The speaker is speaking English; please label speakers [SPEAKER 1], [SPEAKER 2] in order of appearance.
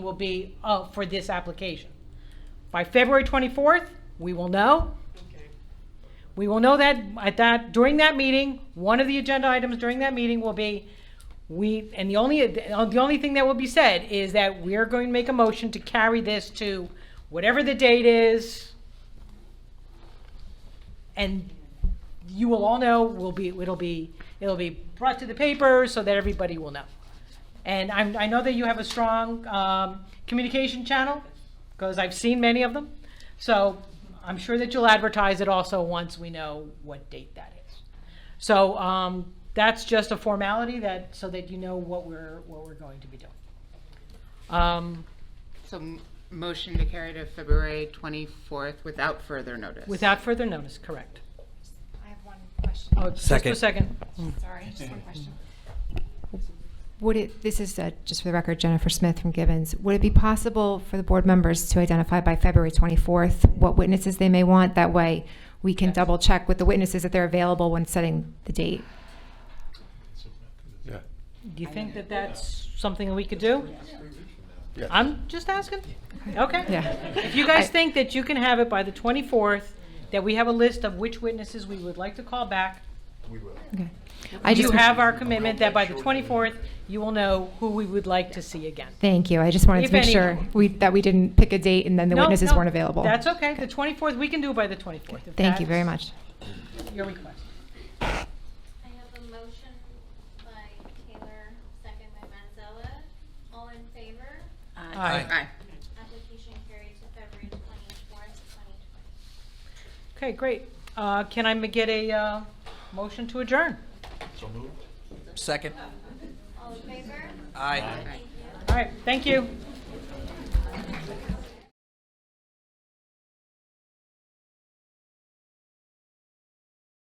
[SPEAKER 1] will be uh, for this application. By February 24th, we will know.
[SPEAKER 2] Okay.
[SPEAKER 1] We will know that at that, during that meeting, one of the agenda items during that meeting will be, we, and the only, the only thing that will be said is that we're going to make a motion to carry this to whatever the date is. And you will all know, will be, it'll be, it'll be brought to the paper so that everybody will know. And I'm, I know that you have a strong, um, communication channel, because I've seen many of them. So I'm sure that you'll advertise it also once we know what date that is. So, um, that's just a formality that, so that you know what we're, what we're going to be doing. Um,
[SPEAKER 2] So m- motion to carry to February 24th without further notice?
[SPEAKER 1] without further notice, correct.
[SPEAKER 3] I have one question,
[SPEAKER 1] Oh, just a
[SPEAKER 4] Second.
[SPEAKER 1] second.
[SPEAKER 3] sorry, just one question. Would it, this is, uh, just for the record, Jennifer Smith from Gibbons, would it be possible for the board members to identify by February 24th what witnesses they may want? That way, we can double-check with the witnesses that they're available when setting the date.
[SPEAKER 4] Yeah.
[SPEAKER 1] Do you think that that's something that we could do?
[SPEAKER 4] Yes.
[SPEAKER 1] I'm just asking. Okay.
[SPEAKER 3] Yeah.
[SPEAKER 1] If you guys
[SPEAKER 3] I-
[SPEAKER 1] think that you can have it by the 24th, that we have a list of which witnesses we would like to call back,
[SPEAKER 3] Okay. I
[SPEAKER 1] you
[SPEAKER 3] just,
[SPEAKER 1] have our commitment that by the 24th, you will know who we would like to see again.
[SPEAKER 3] thank you, I just wanted
[SPEAKER 1] If
[SPEAKER 3] to make
[SPEAKER 1] any-
[SPEAKER 3] sure we, that we didn't pick a date and then the
[SPEAKER 1] No,
[SPEAKER 3] witnesses
[SPEAKER 1] no,
[SPEAKER 3] weren't available.
[SPEAKER 1] That's okay. The 24th, we can do it by the 24th. if
[SPEAKER 3] Thank you very
[SPEAKER 1] that's
[SPEAKER 3] much.
[SPEAKER 1] Your request.
[SPEAKER 5] I have a motion by Taylor, second by Manzella. All in favor?
[SPEAKER 1] Aye.
[SPEAKER 2] Aye.
[SPEAKER 5] Application carried to February twenty-fourth, twenty twenty.
[SPEAKER 1] Okay, great. Uh, Can I ma- get a uh, motion to adjourn?
[SPEAKER 4] Second.
[SPEAKER 5] All in favor?
[SPEAKER 4] Aye.
[SPEAKER 5] Thank you.
[SPEAKER 1] All right, thank you.